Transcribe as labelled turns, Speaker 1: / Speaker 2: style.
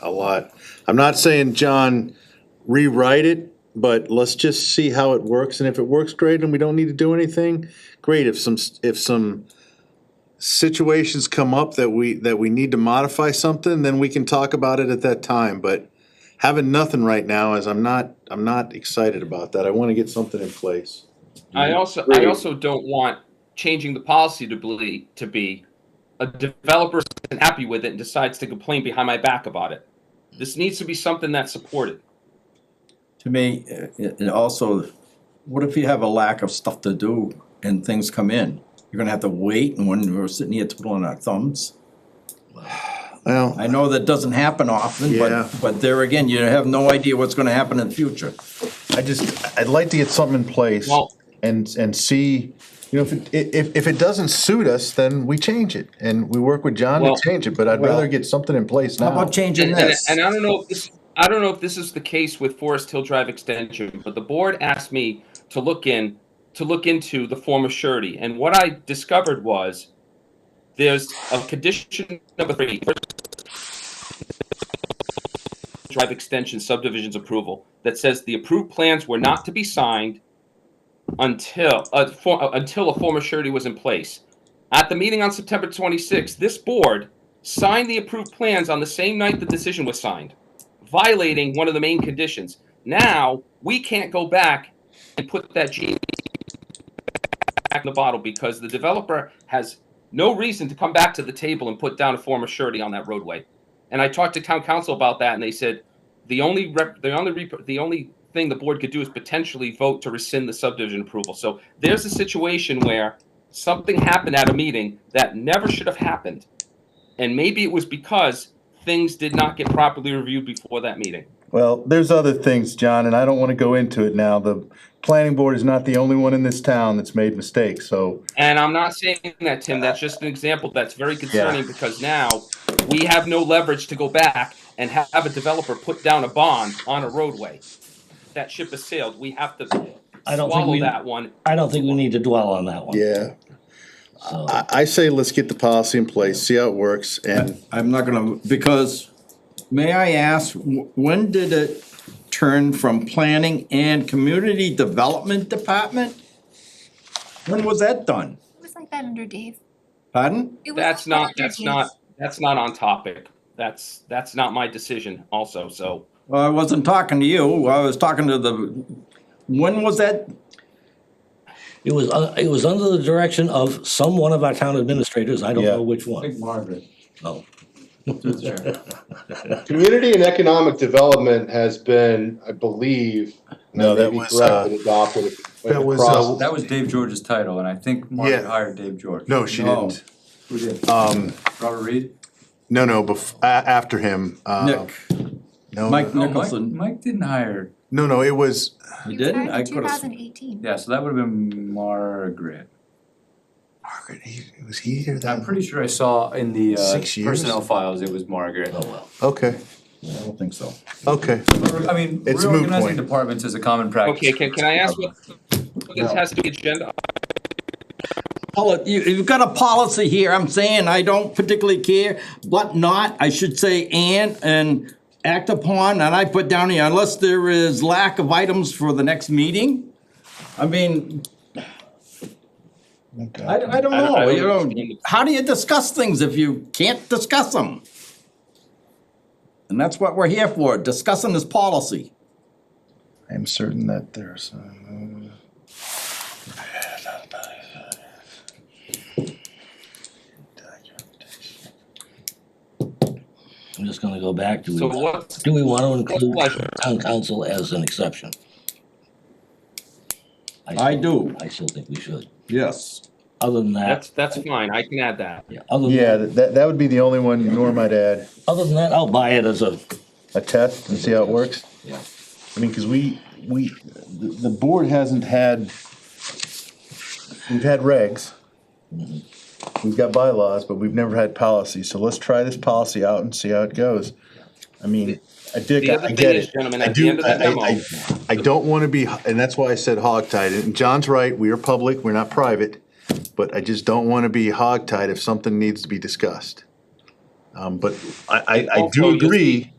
Speaker 1: a lot. I'm not saying, John, rewrite it, but let's just see how it works, and if it works, great, and we don't need to do anything, great, if some, if some situations come up that we, that we need to modify something, then we can talk about it at that time, but having nothing right now is, I'm not, I'm not excited about that, I wanna get something in place.
Speaker 2: I also I also don't want changing the policy to be to be a developer isn't happy with it and decides to complain behind my back about it. This needs to be something that's supported.
Speaker 3: To me, uh, and also, what if you have a lack of stuff to do and things come in? You're gonna have to wait and when we're sitting here twiddling our thumbs.
Speaker 1: Well,
Speaker 3: I know that doesn't happen often,
Speaker 1: Yeah.
Speaker 3: but, but there again, you have no idea what's gonna happen in the future.
Speaker 1: I just, I'd like to get something in place
Speaker 2: Well-
Speaker 1: and, and see, you know, if, it- if, if it doesn't suit us, then we change it. And we work with John to
Speaker 2: Well-
Speaker 1: change it, but I'd rather get something in place
Speaker 3: How
Speaker 1: now.
Speaker 3: about changing
Speaker 2: And, and,
Speaker 3: this?
Speaker 2: and I don't know if this I don't know if this is the case with Forest Hill Drive Extension, but the board asked me to look in to look into the form of surety, and what I discovered was there's a condition number three. Drive extension subdivisions approval that says the approved plans were not to be signed until a for, uh, until a form of surety was in place. At the meeting on September 26th, this board signed the approved plans on the same night the decision was signed, violating one of the main conditions. Now we can't go back and put that genie back in the bottle because the developer has no reason to come back to the table and put down a form of surety on that roadway. And I talked to town council about that, and they said the only rep, the only rep, the only thing the board could do is potentially vote to rescind the subdivision approval. So there's a situation where something happened at a meeting that never should have happened. And maybe it was because things did not get properly reviewed before that meeting.
Speaker 1: Well, there's other things, John, and I don't want to go into it now. The planning board is not the only one in this town that's made mistakes, so.
Speaker 2: And I'm not saying that, Tim, that's just an example that's very concerning because now we have no leverage to go back and have a developer put down a bond on a roadway. That ship has sailed. We have to
Speaker 4: I don't think
Speaker 2: swallow
Speaker 4: we-
Speaker 2: that one.
Speaker 4: I don't think we need to dwell on that one.
Speaker 1: Yeah. I, I say let's get the policy in place, see how it works, and
Speaker 3: I'm not gonna, because, may I ask, wh- when did it turn from planning and community development department? When was that done?
Speaker 5: It was like that under Dave.
Speaker 3: Pardon?
Speaker 5: It was
Speaker 2: That's
Speaker 5: like that
Speaker 2: not,
Speaker 5: under
Speaker 2: that's
Speaker 5: Dave.
Speaker 2: not, that's not on topic. That's, that's not my decision also, so.
Speaker 3: Well, I wasn't talking to you, I was talking to the, when was that?
Speaker 4: It was, uh, it was under the direction of some one of our town administrators, I don't
Speaker 1: Yeah.
Speaker 4: know which one.
Speaker 3: Margaret.
Speaker 4: No.
Speaker 6: Community and economic development has been, I believe. and I
Speaker 1: No,
Speaker 6: may
Speaker 1: that
Speaker 6: be
Speaker 1: was,
Speaker 6: correct,
Speaker 1: uh,
Speaker 6: but Adopted.
Speaker 1: that was,
Speaker 6: across-
Speaker 1: uh,
Speaker 7: That was Dave George's title, and I think Margaret
Speaker 1: Yeah.
Speaker 7: hired Dave George.
Speaker 1: no, she
Speaker 3: No.
Speaker 1: didn't.
Speaker 7: Who did?
Speaker 1: Um,
Speaker 7: Robert Reed?
Speaker 1: no, no, bef- a- after him. uh,
Speaker 3: Nick,
Speaker 1: No,
Speaker 3: Mike
Speaker 7: No, Mike,
Speaker 3: Nicholson.
Speaker 7: Mike didn't hire,
Speaker 1: no, no, it was,
Speaker 3: you
Speaker 5: He
Speaker 3: didn't? I
Speaker 5: Two
Speaker 3: could have.
Speaker 5: thousand eighteen.
Speaker 7: yeah, so that would have been Margaret.
Speaker 1: Margaret, he- was he here
Speaker 7: I'm
Speaker 1: that?
Speaker 7: pretty sure I saw in the uh,
Speaker 1: Six years?
Speaker 7: personnel files, it was Margaret.
Speaker 1: Okay,
Speaker 3: I don't think so.
Speaker 1: okay.
Speaker 7: I mean,
Speaker 1: It's a moot
Speaker 7: reorganizing
Speaker 1: point.
Speaker 7: departments is a common practice.
Speaker 2: Okay, can, can I ask what, what this has to be agenda?
Speaker 3: Poli- you, you've got a policy here, I'm saying I don't particularly care, but not, I should say and, and act upon, and I put down here, unless there is lack of items for the next meeting? I mean, I, I don't
Speaker 2: I don't- I
Speaker 3: know,
Speaker 2: don't
Speaker 3: you know,
Speaker 2: understand.
Speaker 3: how do you discuss things if you can't discuss them? And that's what we're here for, discussing this policy.
Speaker 1: I'm certain that there's. uh,
Speaker 4: I'm just gonna go back to,
Speaker 2: So
Speaker 4: do
Speaker 2: what's
Speaker 4: we wanna include
Speaker 2: pleasure?
Speaker 4: town council as an exception?
Speaker 3: I
Speaker 4: still-
Speaker 3: do.
Speaker 4: I still think we should.
Speaker 3: Yes.
Speaker 4: Other than
Speaker 2: That's,
Speaker 4: that,
Speaker 2: that's fine. I can add that.
Speaker 4: yeah, other
Speaker 1: Yeah,
Speaker 4: than, that-
Speaker 1: that- that, that would be the only one Norm might add,
Speaker 4: other than that, I'll buy it as a,
Speaker 1: a test and see how it works.
Speaker 4: yeah.
Speaker 1: I mean, cause we, we, the, the board hasn't had, we've had regs. We've got bylaws, but we've never had policy, so let's try this policy out and see how it goes. I mean, I dig,
Speaker 2: The other
Speaker 1: I
Speaker 2: thing
Speaker 1: get
Speaker 2: is,
Speaker 1: it.
Speaker 2: gentlemen,
Speaker 1: I
Speaker 2: at the
Speaker 1: do-
Speaker 2: end of the
Speaker 1: I- I-
Speaker 2: demo-
Speaker 1: I- I don't wanna be, and that's why I said hogtied, and John's right, we are public, we're not private, but I just don't wanna be hogtied if something needs to be discussed. Um, but I, I, I
Speaker 2: Also,
Speaker 1: do
Speaker 2: you'll see-
Speaker 1: agree,